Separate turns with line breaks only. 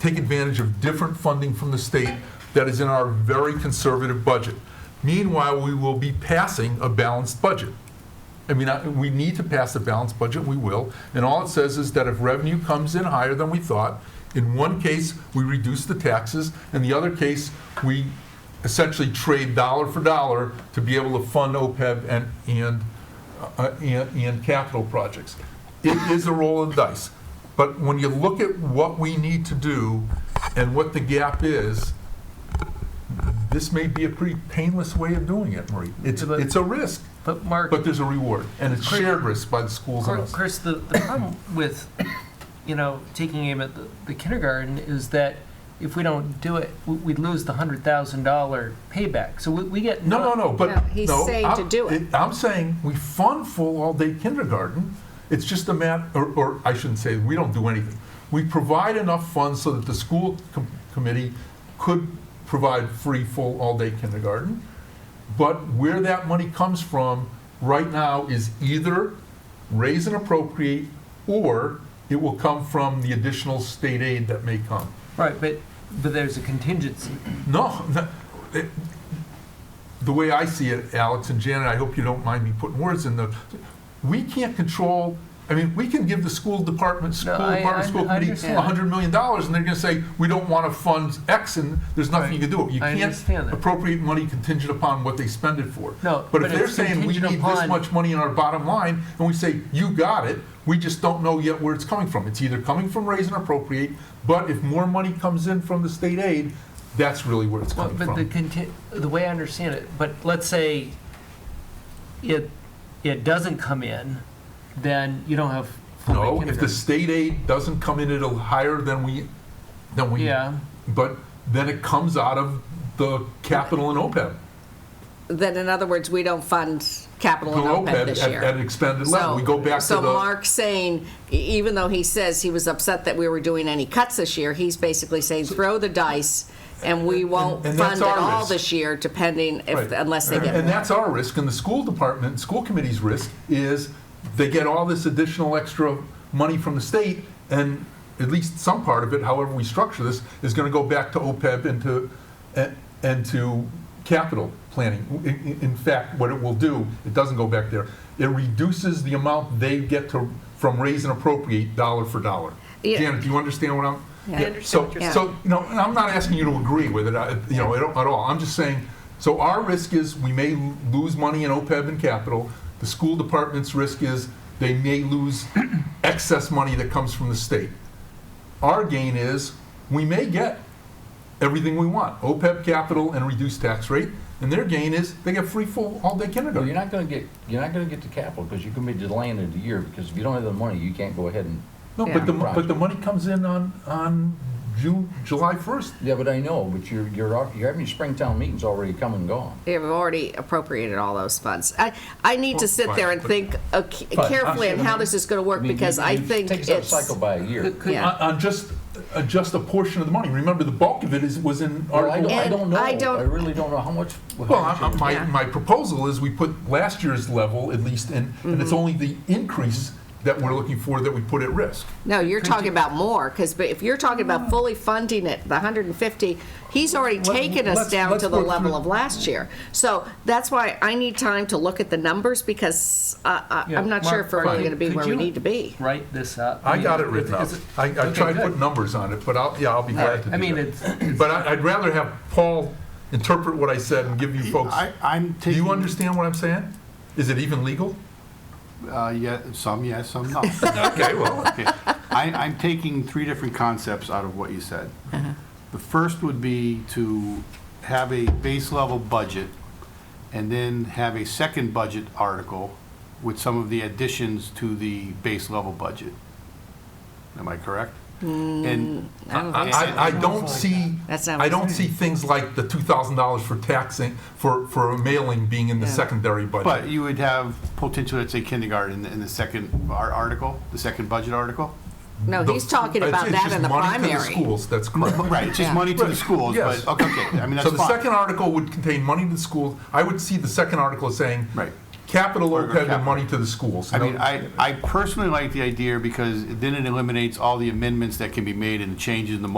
take advantage of different funding from the state that is in our very conservative budget. Meanwhile, we will be passing a balanced budget. I mean, I- we need to pass a balanced budget, we will, and all it says is that if revenue comes in higher than we thought, in one case, we reduce the taxes, in the other case, we essentially trade dollar for dollar to be able to fund OPEB and, and, uh, and, and capital projects. It is a roll of the dice, but when you look at what we need to do and what the gap is, this may be a pretty painless way of doing it, Marie. It's,
Yeah, but-
it's a risk.
But Mark,
But there's a reward, and it's
Chris-
shared risk by the schools and
Chris,
us.
Chris, the, the problem with, you know, taking aim at the, the kindergarten is that if we don't do it, we- we'd lose the hundred thousand dollar payback. So we, we get.
No, no, no, but,
No, he's
no,
saying to
I'm-
do it.
I'm saying, we fund full all-day kindergarten, it's just a matter, or, or I shouldn't say, we don't do anything. We provide enough funds so that the school com- committee could provide free, full, all-day kindergarten, but where that money comes from right now is either raise and appropriate, or it will come from the additional state aid that may come.
Right, but, but there's a contingency.
No, no, it- the way I see it, Alex and Janet, I hope you don't mind me putting words in the, we can't control, I mean, we can give the school department, school
I-
department,
I
school committee,
understand.
$100 million, and they're going to say, we don't want to fund X, and there's nothing you can do. You
I understand
can't
that.
appropriate money contingent upon what they spend it for.
No,
But if
but
they're
it's
saying, we
contingent
need this
upon-
much money in our bottom line, and we say, you got it, we just don't know yet where it's coming from. It's either coming from raise and appropriate, but if more money comes in from the state aid, that's really where it's
Well,
coming
but the
from.
conti, the way I understand it, but let's say it, it doesn't come in, then you don't have full day
No, if the
kindergarten.
state aid doesn't come in at a higher than we, than we,
Yeah,
but then it comes out of the capital and OPEB.
Then, in other words, we don't fund capital
Below
and OPEB
OPEB
E this
E at-
year.
At an expended level,
So-
we go back to
So
the,
Mark's saying, e- even though he says he was upset that we were doing any cuts this year, he's basically saying, throw the dice, and we won't
and
fund
that's
it
our
all
risk.
this year, depending, if
Right.
unless they get
and
more.
that's our risk, and the school department, school committee's risk is they get all this additional extra money from the state, and at least some part of it, however we structure this, is gonna go back to OPEB and to, and- and to capital planning. In- In, in fact, what it will do, it doesn't go back there, it reduces the amount they get to, from raise and appropriate dollar for dollar.
Yeah.
Janet, do you understand what I'm?
Yeah. I
understand
So-
what
you're
So, you know, and I'm not asking you to agree with it, I- you know, at at all. I'm just saying, so our risk is we may l- lose money in OPEB and capital. The school department's risk is they may lose excess money that comes from the state. Our gain is we may get everything we want, OPEB, capital, and reduced tax rate. And their gain is they get free full all-day
Well, you're
kindergarten.
not gonna get, you're not gonna get the capital, because you're gonna be delaying it a year, because if you don't have the money, you can't go ahead and,
No, but the,
Yeah.
but the money comes in on, on June, July 1st.
yeah, but I know, but you're, you're, al- you're having your Springtown meetings already come and gone.
They've already appropriated all those funds. I, I need to
Well,
sit there
fine,
and
but-
think uh, c-
Fine, I'm
carefully on
sure.
how this is going to work,
I mean,
because
you-
I
you
think
Take us
it's.
out of cycle by a year.
Could- could-
Yeah.
on, on just, uh, just a portion of the money. Remember, the bulk of it is, was in
Well, Oh, I
Article
don't, I
And
don't know,
I don't-
I really don't know how much. how
Well,
much
I- I-
it-
my,
Yeah.
my proposal is we put last year's level at least in, and it's only the increase that we're looking for that we put at risk.
No, you're talking about more, because if you're talking about fully funding it, the 150, he's already
Oh. Let-
taken us
let's-
down
let's
to the
work
level
through-
of last year. So that's why I need time to look at the numbers, because I- I-
Yeah,
I'm not sure
Mark-
if we're
Mark,
really going to be
could
where we
you-
need to be.
write this up.
I
mean,
got it
is-
written up.
is it-
I, I
okay,
tried
good.
to put numbers on it, but I'll, yeah, I'll be glad to do
I mean,
that.
it's,
But I- I'd rather have Paul interpret what I said and give you folks,
I, I'm
do
taking.
you understand what I'm saying? Is it even legal?
Uh, yeah, some yes, some no.
Okay, well,
Okay. I, I'm taking three different concepts out of what you said. The first would be to have a base level budget and then have a second budget article with some of the additions to the base level budget. Am I correct? And
I don't
I,
think so.
I- I don't see,
That's not what
I
it
don't
says.
see things like the $2,000 for taxing, for, for a mailing being in the
Yeah.
secondary budget.
But you would have potential, let's say kindergarten in the- in the second ar- article, the second budget article?
No,
The-
he's talking
it's-
about
it's
that
just
in the
money to
primary.
schools, that's correct.
Right, it's just
Yeah.
money to the
Right,
schools,
yes.
but, okay, okay, I mean, that's
So
fine.
the second article would contain money to the schools. I would see the second article as saying,
Right.
capital
Or
OPEB
capital.
and money to the schools.
I mean, I, I personally like the idea because then it eliminates all the amendments that can be made and the changes in the